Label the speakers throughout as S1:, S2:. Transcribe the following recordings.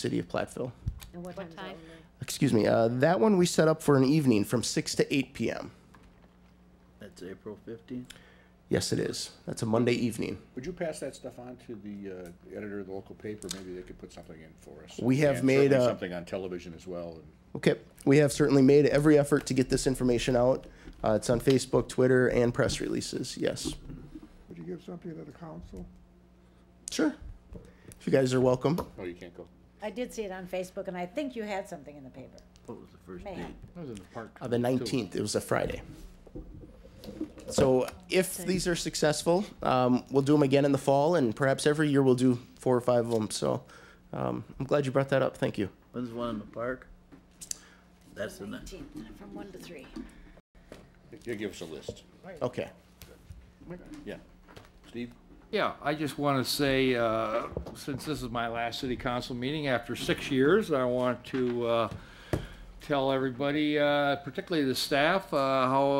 S1: city of Platteville.
S2: And what time?
S3: time?
S1: Excuse me, uh, that one we set up for an evening from 6 to 8 p.m.
S4: That's April fifteenth?
S1: Yes, it is. That's a Monday evening.
S5: Would you pass that stuff on to the uh, editor of the local paper? Maybe they could put something in for us.
S1: We have
S5: And
S1: made,
S5: certainly
S1: uh,
S5: Something on television as well. and-
S1: Okay, we have certainly made every effort to get this information out. Uh, it's on Facebook, Twitter, and press releases. Yes,
S6: Would you give something to the council?
S1: sure. If you guys are welcome.
S5: Oh, you can't go.
S2: I did see it on Facebook, and I think you had something in the paper.
S4: What was the first
S2: May I?
S4: date?
S1: Uh, the 19th, it was a Friday. So if these are successful, um, we'll do them again in the fall, and perhaps every year we'll do four or five of them. So um, I'm glad you brought that up. Thank you.
S4: When's one in the park? That's the night.
S2: Nineteenth, from one to three.
S5: You'll give us a list.
S1: Okay.
S5: Yeah. Steve?
S7: Yeah, I just want to say, uh, since this is my last city council meeting after six years, I want to uh, tell everybody, uh, particularly the staff, uh, how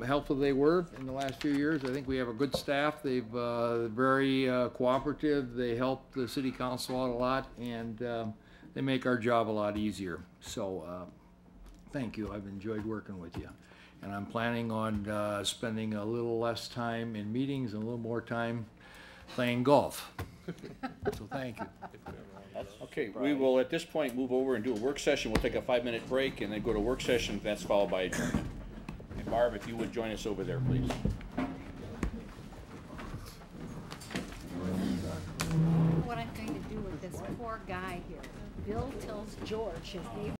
S7: uh, helpful they were in the last few years. I think we have a good staff. They've uh, very uh, cooperative. They help the city council out a lot, and um, they make our job a lot easier. So uh, Thank you, I've enjoyed working with you. And I'm planning on uh, spending a little less time in meetings and a little more time playing golf. So thank you.
S5: Okay, we will at this point move over and do a work session. We'll take a five-minute break and then go to work session. That's followed by adjournment. And Barb, if you would join us over there, please.
S3: What I'm going to do with this poor guy here, Bill tells George his neighbor